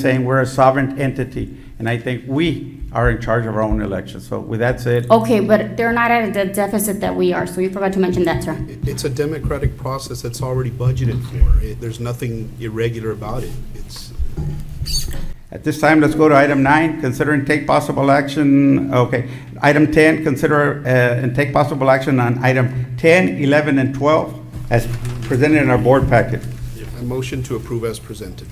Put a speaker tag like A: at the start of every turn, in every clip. A: saying we're a sovereign entity, and I think we are in charge of our own elections. So with that said,
B: Okay, but they're not at the deficit that we are, so you forgot to mention that, sir.
C: It- It's a democratic process that's already budgeted for. It- There's nothing irregular about it. It's,
A: at this time, let's go to item nine, consider and take possible action, okay. Item ten, consider uh, and take possible action on item 10, 11, and twelve as presented in our board packet.
C: a motion to approve as presented.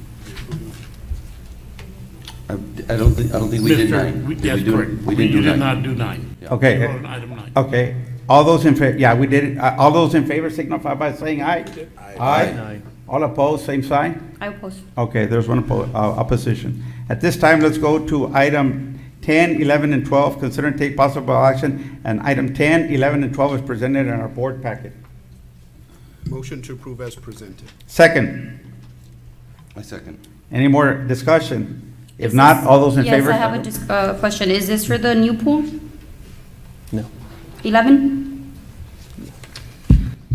D: I I don't think, I don't think we did
E: Mister,
D: nine.
E: we-
D: Did
E: That's
D: we do-
E: correct.
D: We didn't do
E: You did
D: nine.
E: not do nine.
A: Okay.
E: You wrote an item nine.
A: Okay, all those in favor, yeah, we did it. Uh, All those in favor signify by saying aye. Aye. All opposed, same sign?
B: I oppose.
A: Okay, there's one oppo- uh, opposition. At this time, let's go to item 10, 11, and 12, consider and take possible action, and item 10, 11, and 12 is presented in our board packet.
C: Motion to approve as presented.
A: Second,
D: I second.
A: any more discussion? If
B: Is
A: not,
B: this-
A: all those in favor?
B: Yes, I have a dis- uh, question. Is this for the new pool? No. 11?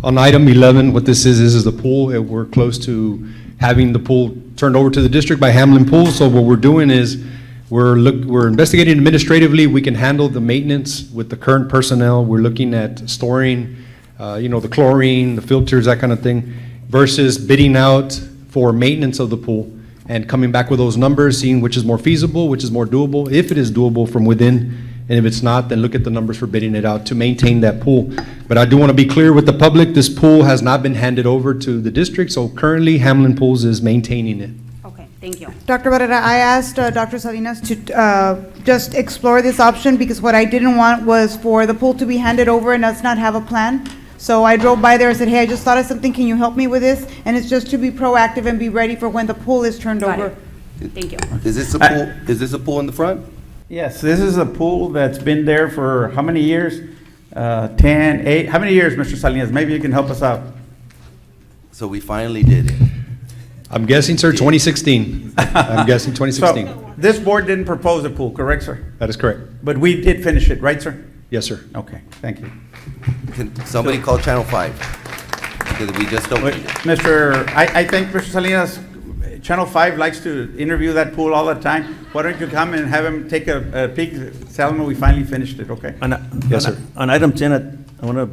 F: On item 11, what this is, this is the pool. and We're close to having the pool turned over to the district by Hamlin Pool. So what we're doing is, we're look, we're investigating administratively. We can handle the maintenance with the current personnel. We're looking at storing, uh, you know, the chlorine, the filters, that kind of thing, versus bidding out for maintenance of the pool and coming back with those numbers, seeing which is more feasible, which is more doable, if it is doable from within. And if it's not, then look at the numbers for bidding it out to maintain that pool. But I do want to be clear with the public, this pool has not been handed over to the district, so currently Hamlin Pools is maintaining it.
B: Okay, thank you.
G: Dr. Barrera, I asked uh, Dr. Salinas to uh, just explore this option because what I didn't want was for the pool to be handed over and us not have a plan. So I drove by there and said, hey, I just thought of something, can you help me with this? And it's just to be proactive and be ready for when the pool is turned
B: Got
G: over.
B: it. Thank you.
D: Is this a
A: I-
D: pool, is this a pool in the front?
A: Yes, this is a pool that's been there for how many years? Uh, 10, 8, how many years, Mr. Salinas? Maybe you can help us out.
D: So we finally did it.
F: I'm guessing, sir, 2016. I'm guessing
A: So,
F: 2016.
A: this board didn't propose a pool, correct, sir?
F: That is correct.
A: But we did finish it, right, sir?
F: Yes, sir.
A: Okay, thank you.
D: Can somebody call Channel Five? Because we just
A: Wait,
D: opened it.
A: Mr., I, I think Mr. Salinas, Channel Five likes to interview that pool all the time. Why don't you come and have him take a, a peek, tell him we finally finished it, okay?
H: On,
F: Yes,
H: on-
F: sir.
H: on item ten, I, I wanna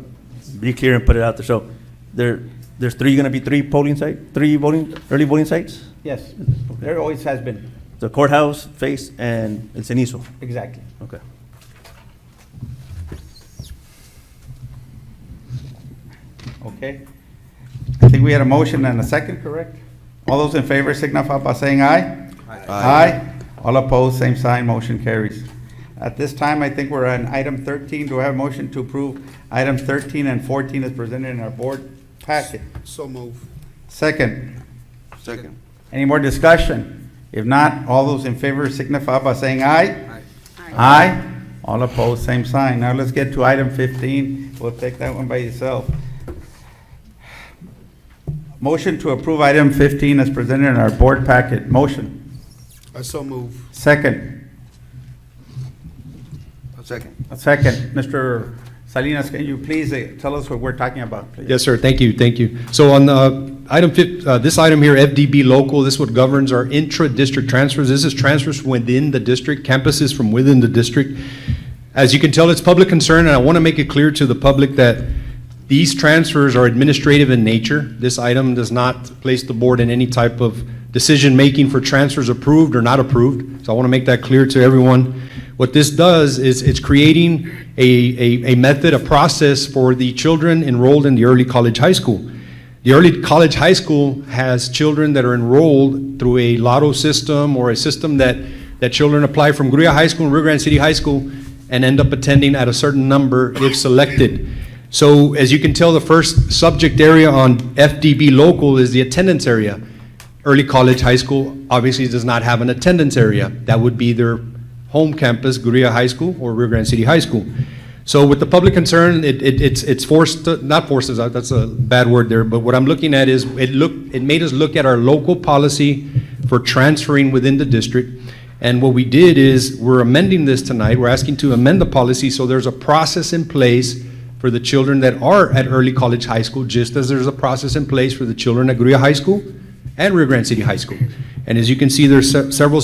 H: be clear and put it out there, so there, there's three, gonna be three polling site, three voting, early voting sites?
A: Yes, there always has been,
H: The courthouse, face, and El Cenizo,
A: exactly.
H: okay.
A: Okay. I think we had a motion and a second, correct? All those in favor signify by saying aye. Aye. All opposed, same sign, motion carries. At this time, I think we're on item 13. Do I have a motion to approve item 13 and 14 as presented in our board packet?
C: So move.
A: Second,
D: Second.
A: any more discussion? If not, all those in favor signify by saying aye. Aye. All opposed, same sign. Now let's get to item 15. We'll take that one by itself. Motion to approve item 15 as presented in our board packet. Motion.
C: I so move.
A: Second,
D: Second.
A: second. Mr. Salinas, can you please eh, tell us what we're talking about, please?
F: Yes, sir, thank you, thank you. So on uh, item, fif- uh, this item here, FDB local, this what governs our intra-district transfers. This is transfers within the district, campuses from within the district. As you can tell, it's public concern, and I want to make it clear to the public that these transfers are administrative in nature. This item does not place the board in any type of decision-making for transfers approved or not approved, so I want to make that clear to everyone. What this does is it's creating a, a, a method, a process for the children enrolled in the early college high school. The early college high school has children that are enrolled through a lotto system or a system that, that children apply from Gruya High School and Rio Grande City High School and end up attending at a certain number if selected. So as you can tell, the first subject area on FDB local is the attendance area. Early college high school obviously does not have an attendance area. That would be their home campus, Gruya High School or Rio Grande City High School. So with the public concern, it, it, it's, it's forced, not forces, that's a bad word there, but what I'm looking at is, it look, it made us look at our local policy for transferring within the district. And what we did is, we're amending this tonight, we're asking to amend the policy, so there's a process in place for the children that are at early college high school, just as there's a process in place for the children at Gruya High School and Rio Grande City High School. And as you can see, there's se- several